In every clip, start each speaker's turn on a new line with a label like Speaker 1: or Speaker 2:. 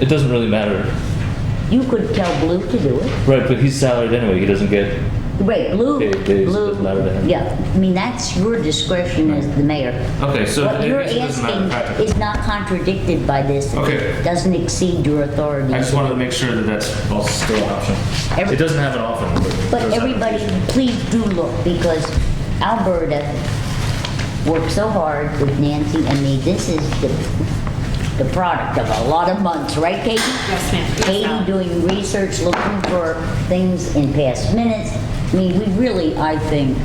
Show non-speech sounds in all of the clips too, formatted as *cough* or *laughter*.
Speaker 1: It doesn't really matter.
Speaker 2: You could tell Blue to do it.
Speaker 1: Right, but he's salaried anyway. He doesn't get.
Speaker 2: Right, Blue,
Speaker 1: Okay, okay, so it
Speaker 2: Blue,
Speaker 1: doesn't matter to him.
Speaker 2: yeah, I mean, that's your discretion as the mayor.
Speaker 1: Okay, so
Speaker 2: What
Speaker 1: it-
Speaker 2: you're
Speaker 1: it doesn't matter
Speaker 2: asking
Speaker 1: practically.
Speaker 2: is not contradicted by this. It
Speaker 1: Okay.
Speaker 2: Doesn't exceed your authority.
Speaker 1: I just wanted to make sure that that's all still an option.
Speaker 2: Every-
Speaker 1: It doesn't have an often. but it
Speaker 2: But
Speaker 1: does have an
Speaker 2: everybody,
Speaker 1: occasion.
Speaker 2: please do look, because Alberta worked so hard with Nancy and me. This is the, the product of a lot of months, right, Katie?
Speaker 3: Yes, ma'am. Yes,
Speaker 2: Katie
Speaker 3: ma'am.
Speaker 2: doing research, looking for things in past minutes. I mean, we really, I think,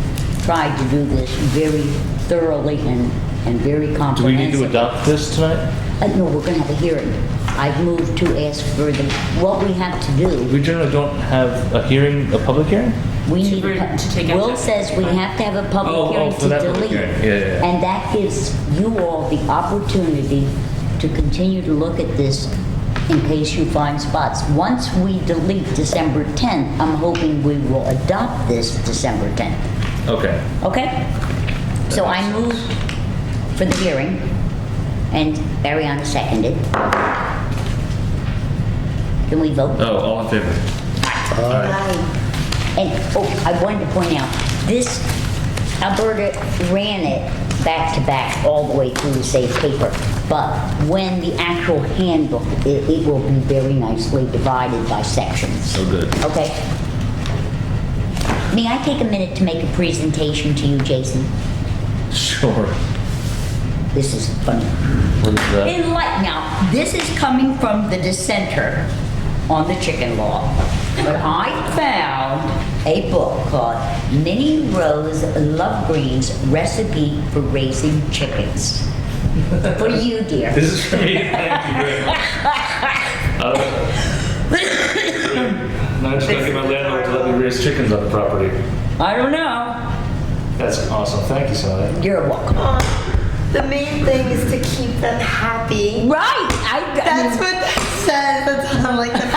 Speaker 2: tried to do this very thoroughly and, and very
Speaker 1: Do we need
Speaker 2: comprehensively.
Speaker 1: to adopt this tonight?
Speaker 2: Uh, no, we're gonna have a hearing. I've moved to ask for the, what we have to do.
Speaker 1: We generally don't have a hearing, a public hearing?
Speaker 2: We
Speaker 3: To
Speaker 2: need, a
Speaker 3: re-
Speaker 2: pub-
Speaker 3: to take action.
Speaker 2: Will says we have to have a
Speaker 1: Oh, oh,
Speaker 2: public hearing
Speaker 1: for that
Speaker 2: to
Speaker 1: public
Speaker 2: delete.
Speaker 1: hearing. Yeah, yeah, yeah.
Speaker 2: And that gives you all the opportunity to continue to look at this in case you find spots. Once we delete December 10th, I'm hoping we will adopt this December 10th,
Speaker 1: Okay.
Speaker 2: okay? So I moved for the hearing, and Ariana seconded. Can we vote?
Speaker 1: Oh, all in favor?
Speaker 2: And, oh, I wanted to point out, this, Alberta ran it back to back all the way through the safe paper. But when the actual handbook, it, it will be very nicely divided by sections,
Speaker 1: So good.
Speaker 2: okay? May I take a minute to make a presentation to you, Jason?
Speaker 1: Sure.
Speaker 2: This is funny.
Speaker 1: What is that?
Speaker 2: Enlighten, now, this is coming from the dissenter on the chicken law. But I found a book called Minnie Rose Love Green's Recipe for Raising Chickens. For you, dear.
Speaker 1: This is for me. Thank you
Speaker 2: *laughs*
Speaker 1: very much. Uh, *coughs* Now I'm just gonna get my landlord to let me raise chickens on the property.
Speaker 2: I don't know.
Speaker 1: That's awesome. Thank you, Sally.
Speaker 2: You're welcome.
Speaker 4: The main thing is to keep them happy.
Speaker 2: Right, I, I
Speaker 4: That's
Speaker 2: mean,
Speaker 4: what that says. That's on like the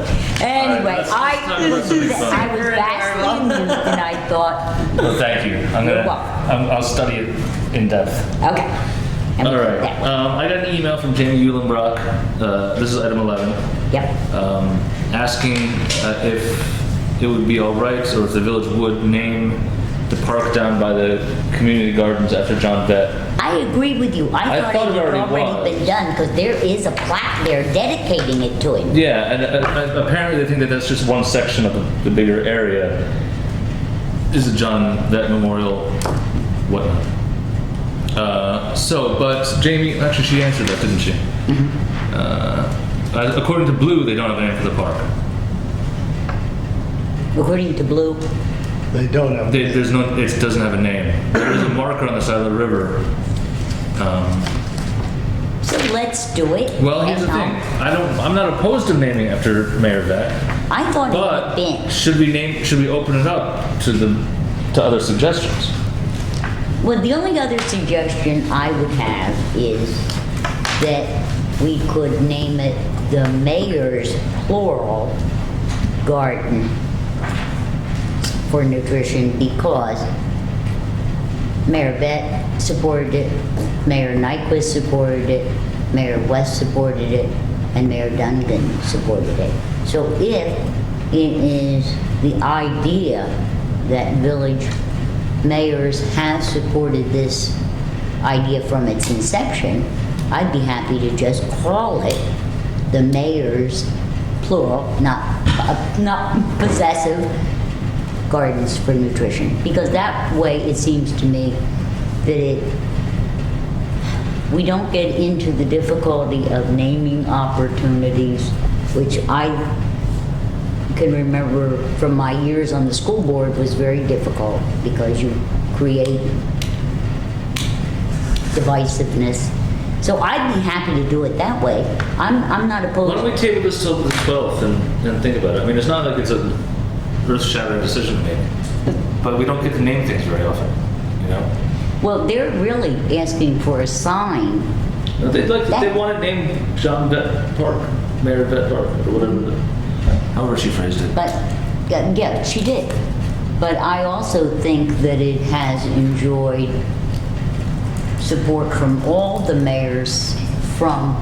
Speaker 4: first
Speaker 2: *laughs*
Speaker 4: page.
Speaker 2: anyway,
Speaker 1: let's- let's talk
Speaker 2: I,
Speaker 1: about something fun.
Speaker 2: I was vastly amused and I thought,
Speaker 1: Well, thank you. I'm
Speaker 2: You're
Speaker 1: gonna,
Speaker 2: welcome.
Speaker 1: I'm- I'll study it in depth.
Speaker 2: okay. And we
Speaker 1: All
Speaker 2: did
Speaker 1: right.
Speaker 2: that.
Speaker 1: Um, I got an email from Jamie Eulenbrock. Uh, this is item 11.
Speaker 2: Yep,
Speaker 1: Um, asking uh, if it would be all right or if the village would name the park down by the community gardens after John Vett.
Speaker 2: I agree with you.
Speaker 1: I
Speaker 2: I thought
Speaker 1: thought
Speaker 2: it
Speaker 1: it
Speaker 2: had
Speaker 1: already
Speaker 2: already been
Speaker 1: was.
Speaker 2: done, because there is a plaque there dedicating it to him.
Speaker 1: Yeah, and uh, uh, apparently they think that that's just one section of the, the bigger area. Is the John Vett Memorial whatnot. Uh, so, but Jamie, actually, she answered that, didn't she? Mm-hmm. Uh, according to Blue, they don't have a name for the park.
Speaker 2: According to Blue,
Speaker 5: They don't have.
Speaker 1: There- There's no, it doesn't have a name. There is a marker on the side of the river. Um,
Speaker 2: so let's do it.
Speaker 1: Well, here's the
Speaker 2: And,
Speaker 1: thing,
Speaker 2: um,
Speaker 1: I don't, I'm not opposed to naming after Mayor Vett,
Speaker 2: I thought it had
Speaker 1: but
Speaker 2: been.
Speaker 1: should we name, should we open it up to the, to other suggestions?
Speaker 2: Well, the only other suggestion I would have is that we could name it the mayor's plural garden for nutrition because Mayor Vett supported it, Mayor Nyquist supported it, Mayor West supported it, and Mayor Duncan supported it. So if it is the idea that village mayors have supported this idea from its inception, I'd be happy to just call it the mayor's plural, not, uh, not possessive, gardens for nutrition because that way it seems to me that it we don't get into the difficulty of naming opportunities which I can remember from my years on the school board was very difficult because you create divisiveness. So I'd be happy to do it that way. I'm, I'm not
Speaker 1: Why
Speaker 2: opposed.
Speaker 1: don't we table this till the 12th and, and think about it? I mean, it's not like it's an earth-shattering decision to make, but we don't get to name things very often, you know?
Speaker 2: Well, they're really asking for a sign
Speaker 1: No, They'd like, they want to name John Vett Park, Mayor Vett Park, or whatever, the- however she phrased it.
Speaker 2: But, yeah, yeah, she did. But I also think that it has enjoyed support from all the mayors from